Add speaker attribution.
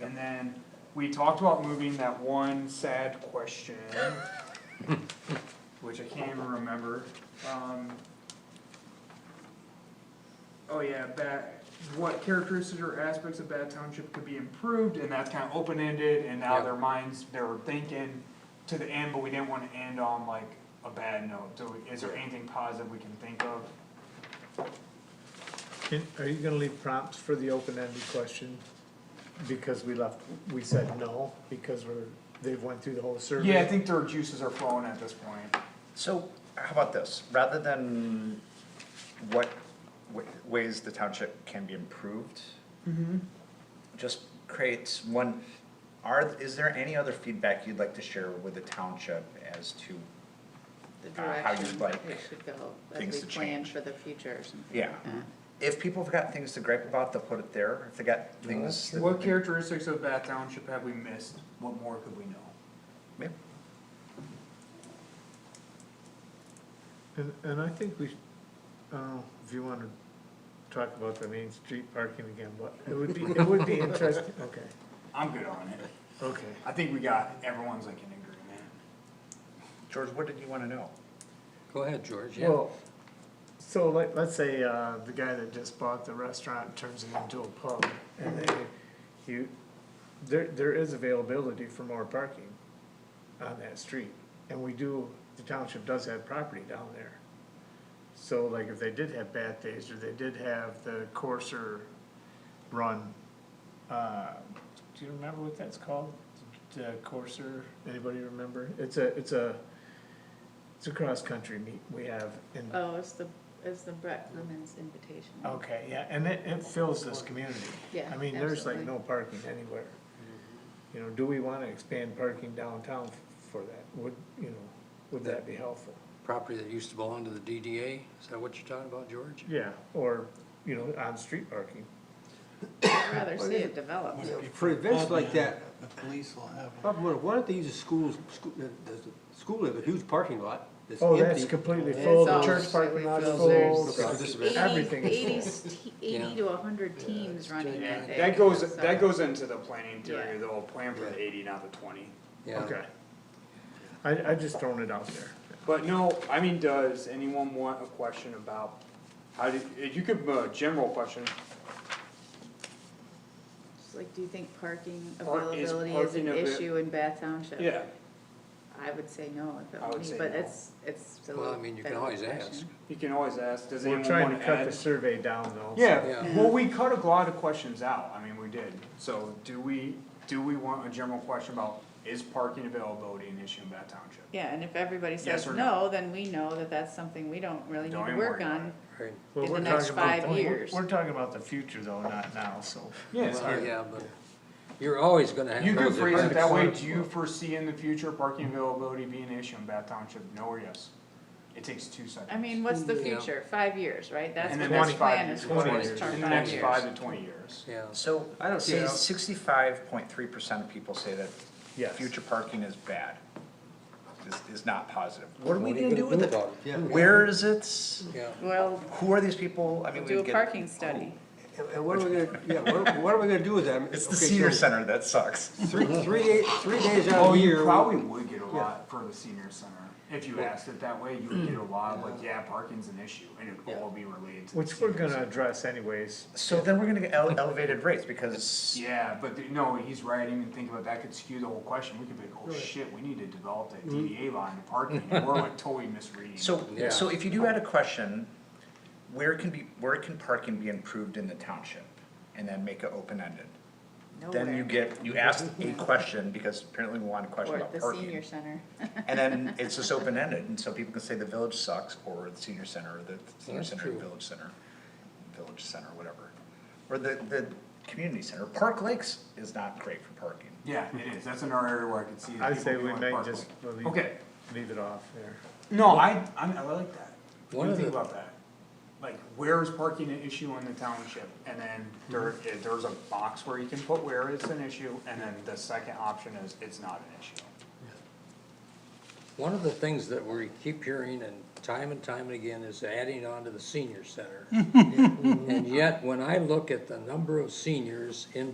Speaker 1: And then we talked about moving that one sad question, which I can't even remember, um. Oh yeah, bad, what characteristics or aspects of bad township could be improved, and that's kinda open-ended, and now
Speaker 2: Yeah.
Speaker 1: their minds, they were thinking to the end, but we didn't wanna end on like a bad note, so is there anything positive we can think of?
Speaker 3: And are you gonna leave prompts for the open-ended question? Because we left, we said no, because we're, they've went through the whole survey.
Speaker 1: Yeah, I think their juices are flowing at this point.
Speaker 4: So how about this, rather than what wa- ways the township can be improved? Just create one, are, is there any other feedback you'd like to share with the township as to,
Speaker 5: the
Speaker 4: Uh, how you'd
Speaker 5: direction
Speaker 4: like
Speaker 5: it should go,
Speaker 4: things
Speaker 5: as
Speaker 4: to
Speaker 5: we plan
Speaker 4: change.
Speaker 5: for the future or something
Speaker 4: yeah?
Speaker 5: like that.
Speaker 4: If people have got things to gripe about, they'll put it there, if they got things. that-
Speaker 1: What characteristics of Bath Township have we missed? What more could we know?
Speaker 4: Yeah.
Speaker 3: And, and I think we, uh, if you wanna talk about the main street parking again, but it would be, it would be interesting, okay,
Speaker 1: I'm good on it.
Speaker 3: okay.
Speaker 1: I think we got, everyone's like in agreement.
Speaker 4: George, what did you wanna know?
Speaker 2: Go ahead, George, yeah.
Speaker 3: Well, so like, let's say, uh, the guy that just bought the restaurant turns it into a pub, and they, you, there, there is availability for more parking on that street, and we do, the township does have property down there. So like, if they did have bad days, or they did have the coarser run, uh, do you remember what that's called? The coarser, anybody remember? It's a, it's a, it's a cross-country meet we have in
Speaker 5: Oh, it's the, it's the Brett Lemon's invitation.
Speaker 3: Okay, yeah, and it, it fills this community.
Speaker 5: Yeah,
Speaker 3: I mean, there's like
Speaker 5: absolutely.
Speaker 3: no parking anywhere.
Speaker 1: Mm-hmm.
Speaker 3: You know, do we wanna expand parking downtown f- for that? Would, you know, would that be helpful?
Speaker 2: Property that used to belong to the DDA, is that what you're talking about, George?
Speaker 3: Yeah. Or, you know, on-street parking.
Speaker 5: I'd rather see it develop.
Speaker 6: For events like that, Bob, Miller, why don't they use the schools, school, the, the school, has a huge parking lot that's
Speaker 3: Oh, that's
Speaker 6: empty.
Speaker 3: completely
Speaker 5: It's
Speaker 3: full, the
Speaker 5: all
Speaker 3: church parking lot's
Speaker 5: fills.
Speaker 3: full.
Speaker 5: There's
Speaker 6: Okay.
Speaker 3: so
Speaker 5: Eighty-
Speaker 3: Everything
Speaker 5: eighty
Speaker 3: is full.
Speaker 5: s- te- eighty to a hundred teams running that day.
Speaker 1: That goes,
Speaker 5: so-
Speaker 1: that goes into the planning
Speaker 5: Yeah.
Speaker 1: theory, the whole plan for the
Speaker 2: Yeah.
Speaker 1: eighty, not the twenty.
Speaker 2: Yeah.
Speaker 3: Okay. I, I just thrown it out there.
Speaker 1: But no, I mean, does anyone want a question about, how did, you could, uh, general question,
Speaker 5: Just Like, do you think parking
Speaker 1: Park- is
Speaker 5: availability is
Speaker 1: parking
Speaker 5: an
Speaker 1: avai-
Speaker 5: issue in Bath Township?
Speaker 1: yeah.
Speaker 5: I would say no, if it
Speaker 1: I
Speaker 5: were
Speaker 1: would
Speaker 5: me,
Speaker 1: say
Speaker 5: but
Speaker 1: no.
Speaker 5: it's, it's still.
Speaker 2: Well, I mean, you can
Speaker 5: better
Speaker 2: always
Speaker 5: question.
Speaker 2: ask.
Speaker 1: You can always ask, does
Speaker 3: We're
Speaker 1: anyone
Speaker 3: trying
Speaker 1: wanna
Speaker 3: to cut
Speaker 1: add?
Speaker 3: the survey down though. so-
Speaker 1: Yeah,
Speaker 2: Yeah.
Speaker 1: well, we cut a lot of questions out, I mean, we did, so do we, do we want a general question about, is parking availability an issue in Bath Township?
Speaker 5: Yeah, and if everybody says
Speaker 1: or no?
Speaker 5: no, then we know that that's something we don't really need
Speaker 1: Don't
Speaker 5: to
Speaker 1: even
Speaker 5: work
Speaker 1: worry about
Speaker 5: on.
Speaker 1: it.
Speaker 2: Right.
Speaker 3: Well,
Speaker 5: in the
Speaker 3: we're
Speaker 5: next
Speaker 3: talking about
Speaker 5: five
Speaker 3: the-
Speaker 5: years.
Speaker 3: We're talking about the future though, not now, so.
Speaker 1: Yeah, it's
Speaker 2: Well,
Speaker 1: hard.
Speaker 2: yeah, but you're always gonna have.
Speaker 1: You can
Speaker 2: those
Speaker 1: phrase it that way,
Speaker 2: events.
Speaker 1: do you foresee in the future parking availability being an issue in Bath Township, no or yes? It takes two seconds.
Speaker 5: I mean, what's the
Speaker 2: Yeah.
Speaker 5: future? Five years, right? That's
Speaker 1: In
Speaker 5: what
Speaker 1: the
Speaker 5: this
Speaker 1: next five
Speaker 5: plan is
Speaker 1: years.
Speaker 5: for,
Speaker 3: Twenty
Speaker 5: is term
Speaker 1: In the next five
Speaker 5: years.
Speaker 1: to twenty years.
Speaker 2: Yeah,
Speaker 4: So,
Speaker 6: I don't see
Speaker 4: say
Speaker 6: how-
Speaker 4: sixty-five point three percent of people say that
Speaker 3: Yes.
Speaker 4: future parking is bad, is, is not positive. What
Speaker 2: What
Speaker 4: are we
Speaker 2: are you
Speaker 4: gonna do
Speaker 2: gonna
Speaker 4: with
Speaker 2: do
Speaker 4: it?
Speaker 2: about it? Yeah.
Speaker 4: Where is it?
Speaker 2: yeah.
Speaker 5: Well,
Speaker 4: Who are these people? I mean, we
Speaker 5: do a
Speaker 4: get-
Speaker 5: parking study.
Speaker 6: And- And what are we gonna, yeah, what, are- what are we gonna do with that? I mean,
Speaker 4: It's the
Speaker 6: okay, so
Speaker 4: senior center that sucks.
Speaker 6: Three, three day- three days out
Speaker 1: Oh,
Speaker 6: of the
Speaker 1: you
Speaker 6: year.
Speaker 1: probably would get a lot for the senior center, if you asked it that way, you would get a lot, like, yeah, parking's an issue, and it'd all be related to. the
Speaker 3: Which we're
Speaker 1: senior
Speaker 3: gonna
Speaker 1: center.
Speaker 3: address anyways.
Speaker 4: So then we're gonna get ele- elevated rates because
Speaker 1: Yeah, but the- no, he's right, I didn't even think about, that could skew the whole question, we could be like, oh shit, we need to develop that DDA line to parking, and we're like totally misreading.
Speaker 4: So,
Speaker 2: Yeah.
Speaker 4: so if you do add a question, where can be, where can parking be improved in the township? And then make it open-ended. Then you
Speaker 5: Nowhere.
Speaker 4: get, you ask a question, because apparently we want a question
Speaker 5: Or
Speaker 4: about
Speaker 5: the senior
Speaker 4: parking.
Speaker 5: center.
Speaker 4: And then it's just open-ended, and so people can say the village sucks, or the senior center, or the senior
Speaker 2: That's
Speaker 4: center,
Speaker 2: true.
Speaker 4: village center, village center, whatever. Or the, the community center, Park Lakes is not great for parking.
Speaker 1: Yeah, it is, that's another area where I could see. that
Speaker 3: I
Speaker 1: people
Speaker 3: say
Speaker 1: do
Speaker 3: we
Speaker 1: wanna
Speaker 3: may
Speaker 1: park
Speaker 3: just
Speaker 1: like-
Speaker 3: leave,
Speaker 1: Okay,
Speaker 3: leave it off there.
Speaker 1: no, I, I'm, I like that, what
Speaker 2: One
Speaker 1: do you
Speaker 2: of
Speaker 1: think
Speaker 2: the-
Speaker 1: about that? Like, where is parking an issue in the township, and then there,
Speaker 3: Mm-hmm.
Speaker 1: eh, there's a box where you can put where it's an issue, and then the second option is, it's not an issue.
Speaker 2: One of the things that we keep hearing and time and time and again is adding on to the senior center. And yet, when I look at the number of seniors in